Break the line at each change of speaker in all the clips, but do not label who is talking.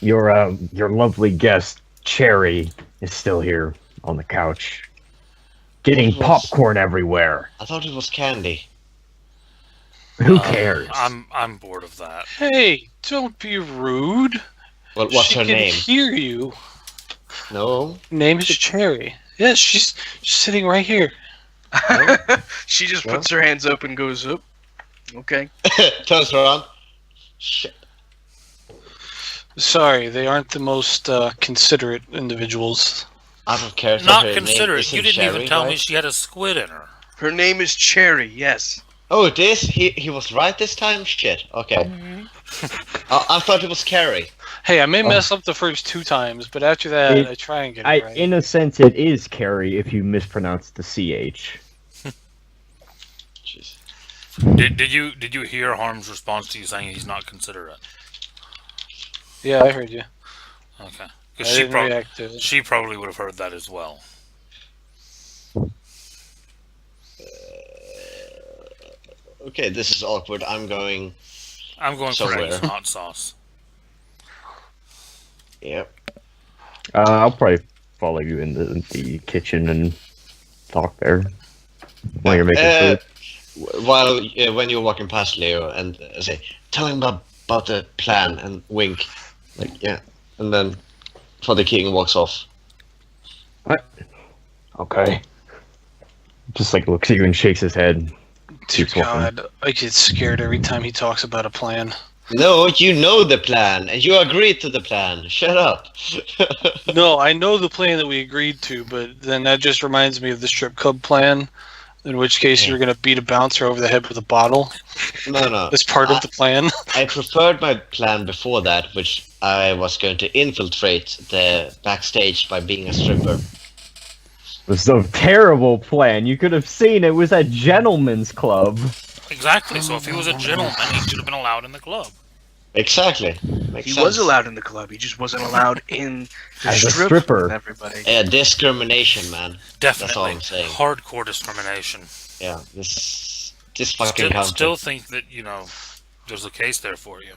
your um, your lovely guest Cherry is still here on the couch, getting
Yes.
popcorn everywhere.
I thought it was candy.
Who
Um,
cares?
I'm I'm bored of that.
Hey, don't be rude.
Well, what's
she
her
can
name?
hear you.
No.
Name is Cherry. Yes, she's, she's sitting right here.
she just
Well.
puts her hands up and goes up. Okay.
Turns around. Shit.
Sorry, they aren't the most uh, considerate individuals.
I don't care. if her
Not
name
considerate.
isn't
You didn't
Sherry,
even tell me
right?
she had a squid in her.
Her name is Cherry. Yes.
Oh, it is. He he was right this time. Shit. Okay.
Mm-hmm.
I, I thought it was Carrie.
Hey, I may
Oh.
mess up the first two times, but after that,
It-
I try and get it
I,
right.
in a sense, it is Carrie if you mispronounce the ch.
Jeez.
Did, did you did you hear Harm's response to you saying he's not considerate?
yeah, I heard you.
Okay.
I
'Cause she
didn't
prob-
react to it.
she probably would have heard that as well.
Okay, this is awkward. I'm going.
I'm going for
Somewhere.
eggs, not sauce.
Yep.
Uh, I'll probably follow you in the, the kitchen and talk there while you're making
Uh,
food.
w- While uh, when you're walking past Leo and uh, say, "Tell him about, about the plan," and wink, like yeah, and then Father King walks off.
Okay. Just like looks at you and shakes his head.
Dear
keeps walking.
God, I get scared every time he talks about a plan.
No, you know the plan, and you agreed to the plan. Shut up.
no, I know the plan that we agreed to, but then that just reminds me of the strip club plan, in which case
Yeah.
you're going to beat a bouncer over the head with a bottle.
no, no.
That's part
I-
of the plan.
I preferred my plan before that, which I was going to infiltrate the backstage by being a stripper.
This is a terrible plan. You could have seen it was a gentleman's club.
Exactly. So if he was a gentleman, he should have been allowed in the club.
Exactly. Makes
He
sense.
was allowed in the club. He just wasn't allowed in the
As a
strip
stripper.
with everybody.
Yeah, discrimination, man.
Definitely.
all I'm saying.
Hardcore discrimination.
Yeah, this this fucking
Still,
country.
still think that you know there's a case there for you.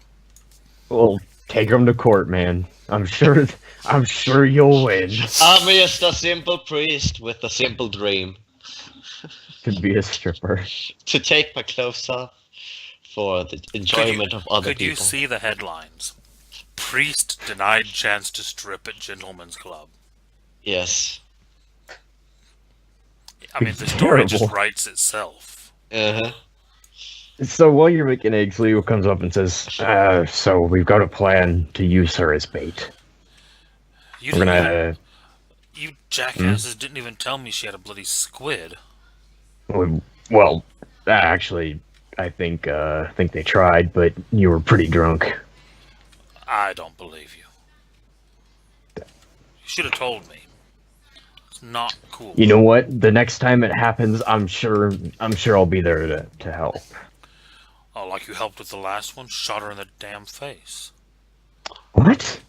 Well, take him to court, man. I'm sure. I'm sure you'll win.
I'm just a simple priest with a simple dream
To be a stripper.
to take my clothes off for the enjoyment of other
Could you
people.
see the headlines? Priest denied chance to strip at gentleman's club.
Yes.
I mean, the story just
Terrible.
writes itself.
Uh-huh.
So while you're making eggs, Leo comes up and says, uh, "So we've got a plan to use her as bait.
You
We're
didn't even-
gonna. Hmm?
You jackasses didn't even tell me she had a bloody squid.
we- Well, uh, actually, I think. Uh, I think they tried, but you were pretty drunk.
I don't believe you. You should have told me. It's not cool.
You know what? The next time it happens, I'm sure. I'm sure I'll be there to to help.
Oh, like you helped with the last one? Shot her in the damn face.
What?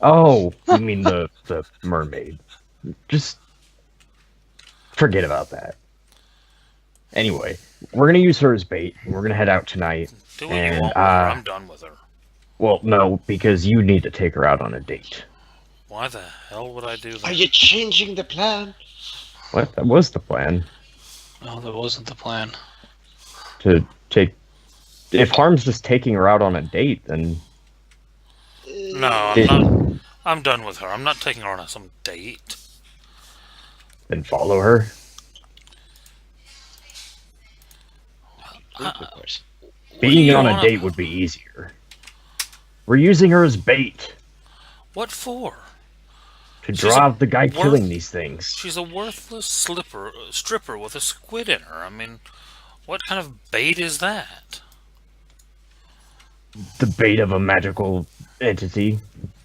Oh, you mean the the mermaid? Just forget about that. Anyway, we're gonna use her as bait. and We're gonna head out tonight.
Do what
And,
you want. with her.
uh,
I'm done with her.
Well, no, because you need to take her out on a date.
Why the hell would I do
Are
that?
you changing the plan?
What? That was the plan
No, that wasn't the plan.
to take. If Harm's just taking her out on a date, then
No, I'm not. I'm done with her. I'm not taking her on some date.
then follow her.
Uh,
Of course.
Being
you
on a
wanna-
date would be easier. We're using her as bait
What for?
to
She's a
draw out the guy
worth-
killing these things.
She's a worthless slipper, uh, stripper with a squid in her. I mean, what kind of bait is that?
the bait of a magical entity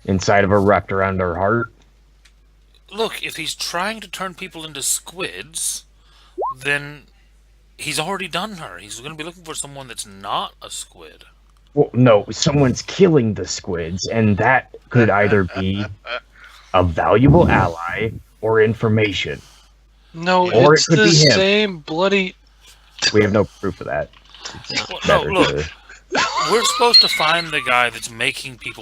inside of her wrapped around her heart.
Look, if he's trying to turn people into squids, then he's already done her. He's going to be looking for someone that's not a squid.
Well, no, someone's killing the squids, and that could either be a valuable ally or information.
No,
Or it
it's
could
the
be him.
same bloody.
We have no proof of that.
Well, no,
Better
look,
to-
we're supposed to find the guy that's making people